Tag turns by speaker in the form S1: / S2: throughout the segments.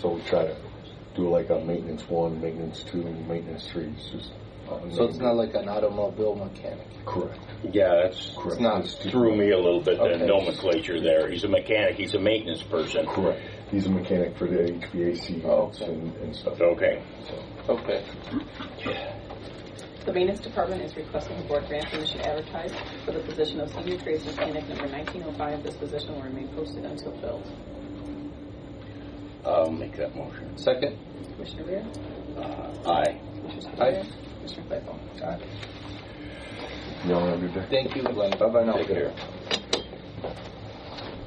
S1: So we try to do like a maintenance one, maintenance two, and maintenance three. It's just uh,
S2: So it's not like an automobile mechanic.
S1: correct.
S3: Yeah, that's
S1: Correct.
S2: not
S1: It's two-
S3: threw me a little bit, the
S2: Okay.
S3: nomenclature there. He's a mechanic, he's a maintenance person.
S1: Correct. He's a mechanic for the HVAC
S2: Oh, okay.
S1: and, and stuff.
S3: Okay.
S2: Okay.
S4: The maintenance department is requesting the board grant permission to advertise for the position of senior trades mechanic number 1905. This position will remain posted until filled.
S3: I'll make that motion.
S2: Second.
S4: Commissioner Rea?
S3: Uh, aye.
S4: Commissioner
S2: Aye.
S4: Spudler? Commissioner Claypool?
S1: Y'all have a good day.
S2: Thank you, Glenn. Bye bye now.
S3: Take care.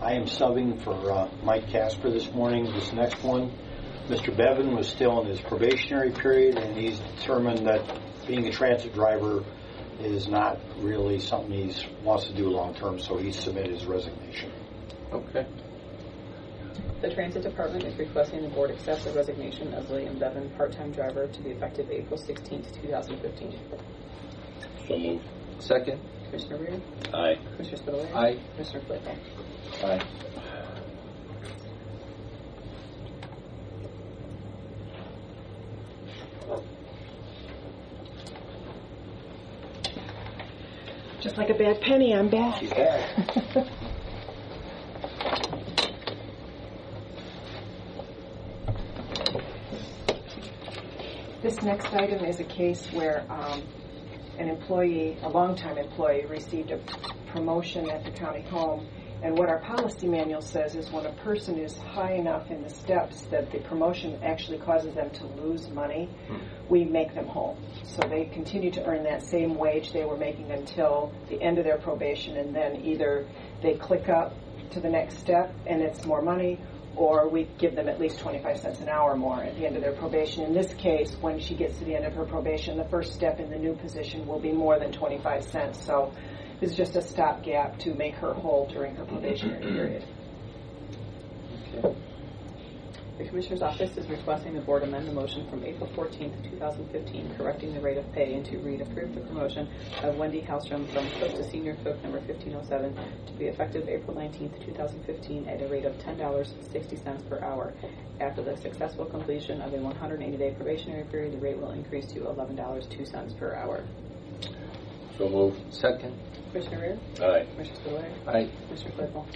S5: I am subbing for uh, Mike Casper this morning, this next one. Mr. Bevan was still in his probationary period, and he's determined that being a transit driver is not really something he's wants to do long-term, so he submitted his resignation.
S2: Okay.
S4: The transit department is requesting the board accept the resignation of William Bevan, part-time driver, to be effective April 16, 2015.
S3: So move.
S2: Second.
S4: Commissioner Rea?
S3: Aye.
S4: Commissioner Spudler?
S2: Aye.
S4: Commissioner Claypool?
S2: Aye.
S6: Just like a bad penny, I'm back. This next item is a case where um, an employee, a longtime employee, received a promotion at the county home. And what our policy manual says is when a person is high enough in the steps that the promotion actually causes them to lose money, we make them whole. So they continue to earn that same wage they were making until the end of their probation, and then either they click up to the next step and it's more money, or we give them at least 25 cents an hour more at the end of their probation. In this case, when she gets to the end of her probation, the first step in the new position will be more than 25 cents. So it's just a stopgap to make her whole during her probationary period.
S4: The Commissioner's Office is requesting the Board amend the motion from April 14th, 2015, correcting the rate of pay and to read approve the promotion of Wendy Halstrom from cook to senior cook number 1507 to be effective April 19th, 2015, at a rate of $10.60 per hour. After the successful completion of a 180-day probationary period, the rate will increase to $11.02 per hour.
S3: So move.
S2: Second.
S4: Commissioner Rea?
S3: Aye.
S4: Commissioner Spudler?
S2: Aye.
S4: Commissioner Claypool?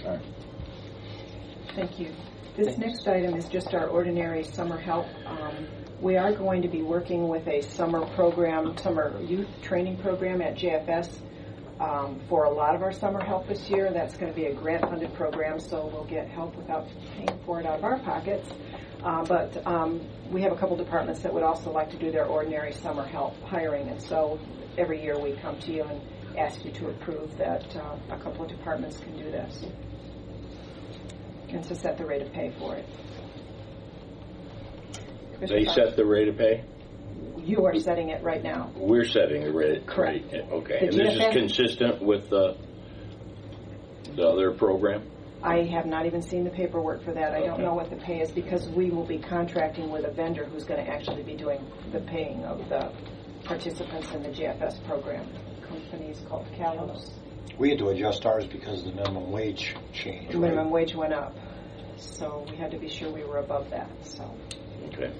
S6: Thank you. This next item is just our ordinary summer help. Um, We are going to be working with a summer program, summer youth training program at JFS um, for a lot of our summer help this year. That's going to be a grant-funded program, so we'll get help without paying for it out of our pockets. Uh, But um, we have a couple departments that would also like to do their ordinary summer help hiring, and so every year we come to you and ask you to approve that uh, a couple of departments can do this and to set the rate of pay for it.
S3: They set the rate of pay?
S6: You are setting it right now.
S3: We're setting the rate.
S6: Correct.
S3: rate, Okay.
S6: The
S3: And this is
S6: GFS
S3: consistent with the, the other program?
S6: I have not even seen the paperwork for that. I don't know what the pay is because we will be contracting with a vendor who's going to actually be doing the paying of the participants in the GFS program. Company's called Calos.
S5: We had to adjust ours because of the minimum wage change.
S6: The
S5: right?
S6: minimum wage went up, so we had to be sure we were above that, so.
S3: Okay.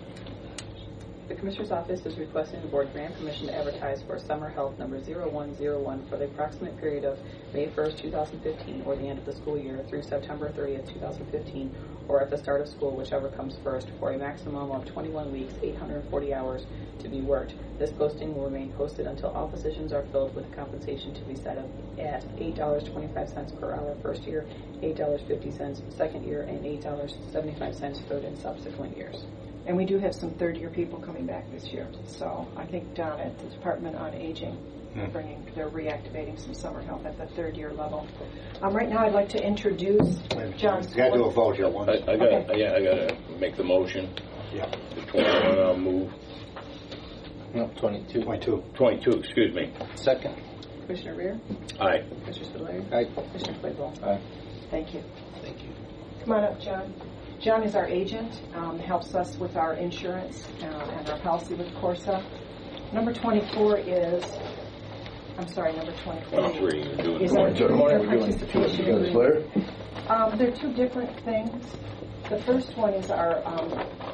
S4: The Commissioner's Office is requesting the Board grant permission to advertise for summer help number 0101 for the approximate period of May 1st, 2015, or the end of the school year through September 30th, 2015, or at the start of school, whichever comes first, for a maximum of 21 weeks, 840 hours to be worked. This posting will remain posted until all positions are filled with compensation to be set up at $8.25 per hour first year, $8.50 second year, and $8.75 third and subsequent years.
S6: And we do have some third-year people coming back this year, so I think down at the Department on Aging,
S5: Hmm.
S6: they're bringing, they're reactivating some summer help at the third-year level. Um, Right now, I'd like to introduce John
S5: We Got to do a
S6: Swart.
S5: vote here
S3: I,
S5: once.
S3: I gotta, yeah, I gotta make the motion.
S5: Yeah,
S3: The 21, I'll move.
S2: No, 22.
S5: twenty-two.
S3: 22, excuse me.
S2: Second.
S4: Commissioner Rea?
S3: Aye.
S4: Commissioner Spudler?
S2: Aye.
S4: Commissioner Claypool?
S6: Thank you.
S2: Thank you.
S6: Come on up, John. John is our agent, um, helps us with our insurance uh, and our policy with Corsa. Number 24 is, I'm sorry, number 23.
S3: 23, you're doing
S6: Is
S3: it.
S6: that-
S1: Good morning. We're doing two
S6: Participation
S1: together, Blair.
S6: Um, They're two different things. The first one is our um,